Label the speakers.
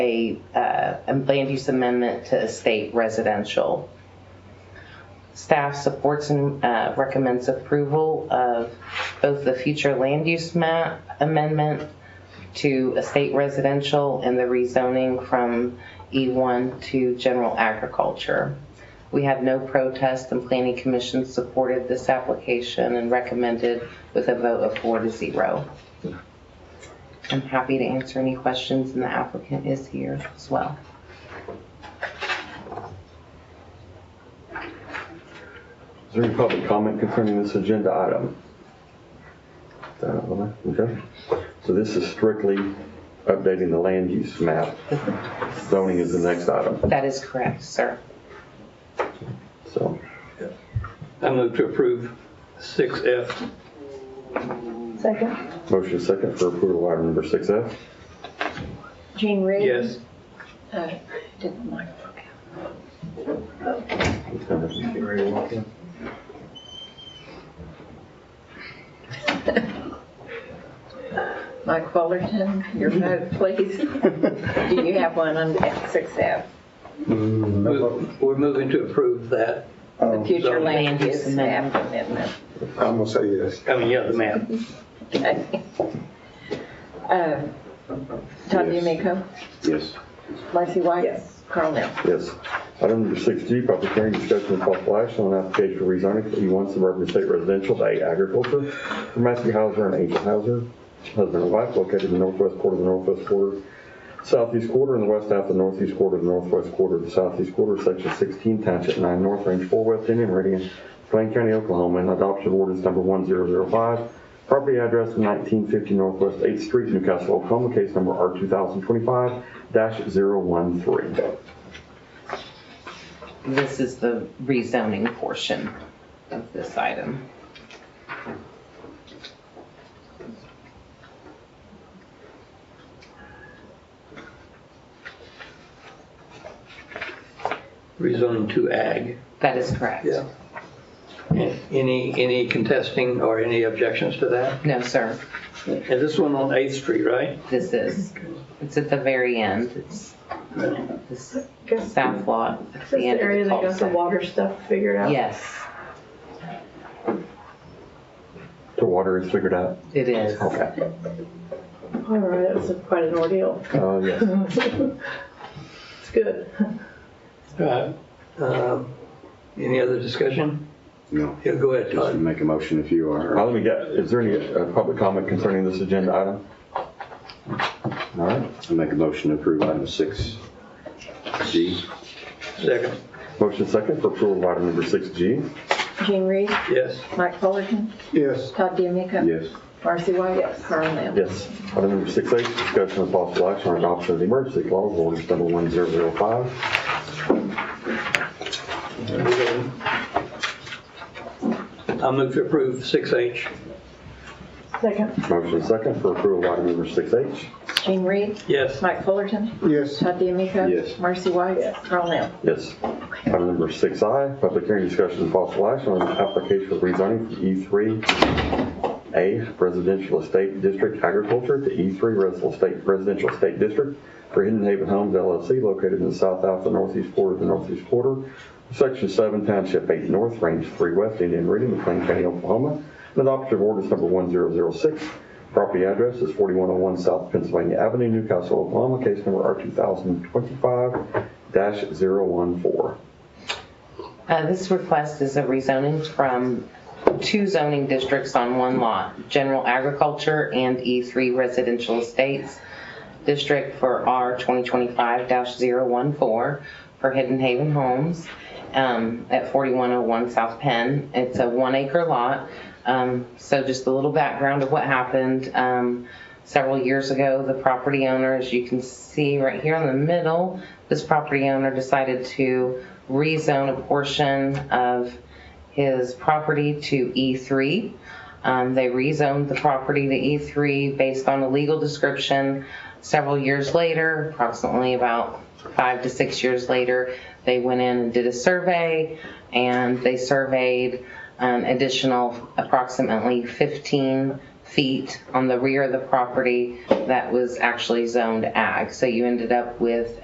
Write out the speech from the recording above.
Speaker 1: a uh, a land use amendment to state residential. Staff supports and uh, recommends approval of both the future land use map amendment to estate residential and the rezoning from E1 to general agriculture. We had no protest and planning commission supported this application and recommended with a vote of four to zero. I'm happy to answer any questions and the applicant is here as well.
Speaker 2: Is there any public comment concerning this agenda item? Uh, Okay, so this is strictly updating the land use map. Zoning is the next item,
Speaker 1: That is correct, sir.
Speaker 2: so.
Speaker 3: I move to approve 6F.
Speaker 4: Second.
Speaker 2: Motion second for approval of item number 6F.
Speaker 4: Jean Reed?
Speaker 3: Yes.
Speaker 4: Uh, Didn't like it. Mike Fullerton, your vote, please. Do you have one on six F?
Speaker 5: Mm,
Speaker 3: Move- We're moving to approve that.
Speaker 6: Oh,
Speaker 4: The
Speaker 5: um,
Speaker 4: future land
Speaker 1: Land use
Speaker 4: use map amendment.
Speaker 5: I'm gonna say yes.
Speaker 3: I mean, yeah, the map.
Speaker 4: Okay. Um, Todd
Speaker 2: Yes.
Speaker 4: D'Amico?
Speaker 2: Yes.
Speaker 4: Marcy White? Yes. Carl Nell?
Speaker 2: Yes. Item number 6G, public hearing discussion and possible action on application for rezoning for E1 suburban estate residential to A agriculture for Matthew Hauser and Angel Hauser, husband and wife, located in the northwest quarter of the northwest quarter, southeast quarter, and the west half of the northeast quarter, the northwest quarter, the southeast quarter, section 16, township 9 north, range 4 west, Indian Meridian, Plain County, Oklahoma, and adoption of ordinance number 1005, property address 1950 Northwest 8th Street, Newcastle, Oklahoma, case number R2025-013.
Speaker 1: This is the rezoning portion of this item.
Speaker 3: Rezoning to ag.
Speaker 1: That is correct.
Speaker 3: Yeah. And Any, any contesting or any objections to that?
Speaker 1: No, sir,
Speaker 3: And this one on 8th Street, right?
Speaker 1: this is, it's at the very end. It's this south lot at the end of the cul-de-sac.
Speaker 4: water stuff figured
Speaker 1: Yes,
Speaker 2: The water is figured out?
Speaker 1: it is.
Speaker 2: Okay.
Speaker 7: All right, that was a- quite an ordeal.
Speaker 2: Uh, yes.
Speaker 7: It's good.
Speaker 3: Right. Um, Any other discussion?
Speaker 6: No,
Speaker 3: Yeah, go ahead,
Speaker 6: just
Speaker 3: Todd.
Speaker 6: make a motion if you
Speaker 2: Now,
Speaker 6: are.
Speaker 2: let me get, is there any uh, public comment concerning this agenda item? All right.
Speaker 6: I'll make a motion to approve item six G.
Speaker 3: Second.
Speaker 2: Motion second for approval of item number 6G.
Speaker 4: Jean Reed?
Speaker 3: Yes.
Speaker 4: Mike Fullerton?
Speaker 5: Yes,
Speaker 4: Todd D'Amico?
Speaker 6: Yes,
Speaker 4: Marcy White? Yes. Carl Nell?
Speaker 2: Yes. Item number 6H, discussion of possible action on adoption of the emergency clause, ordinance number 1005.
Speaker 3: I move to approve 6H.
Speaker 7: Second.
Speaker 2: Motion second for approval of item number 6H.
Speaker 4: Jean Reed?
Speaker 3: Yes.
Speaker 4: Mike Fullerton?
Speaker 5: yes,
Speaker 4: Todd D'Amico?
Speaker 6: Yes.
Speaker 4: Marcy White? Yes. Carl Nell?
Speaker 2: Yes. Item number 6I, public hearing discussion and possible action on application for E rezoning from E3A Residential Estate District Agriculture to E3 Residential Estate Residential Estate District for Hidden Haven Homes LLC located in the south half of the northeast quarter of the northeast quarter, section 7, township 8 north, range 3 west, Indian Meridian, McLean County, Oklahoma, and adoption of ordinance number 1006. Property address is 4101 South Pennsylvania Avenue, Newcastle, Oklahoma, case number R2025-014.
Speaker 1: Uh, This request is a rezoning from two zoning districts on one lot, general agriculture and E3 residential estates district for R 2025-014 for Hidden Haven Homes um, at 4101 South Penn. It's a one acre lot. Um, So just a little background of what happened. Um, Several years ago, the property owner, as you can see right here in the middle, this property owner decided to rezone a portion of his property to E3. Um, they rezoned the property to E3 based on a legal description. Several years later, approximately about five to six years later, they went in and did a survey and they surveyed an additional approximately 15 feet on the rear of the property that was actually zoned ag. So you ended up with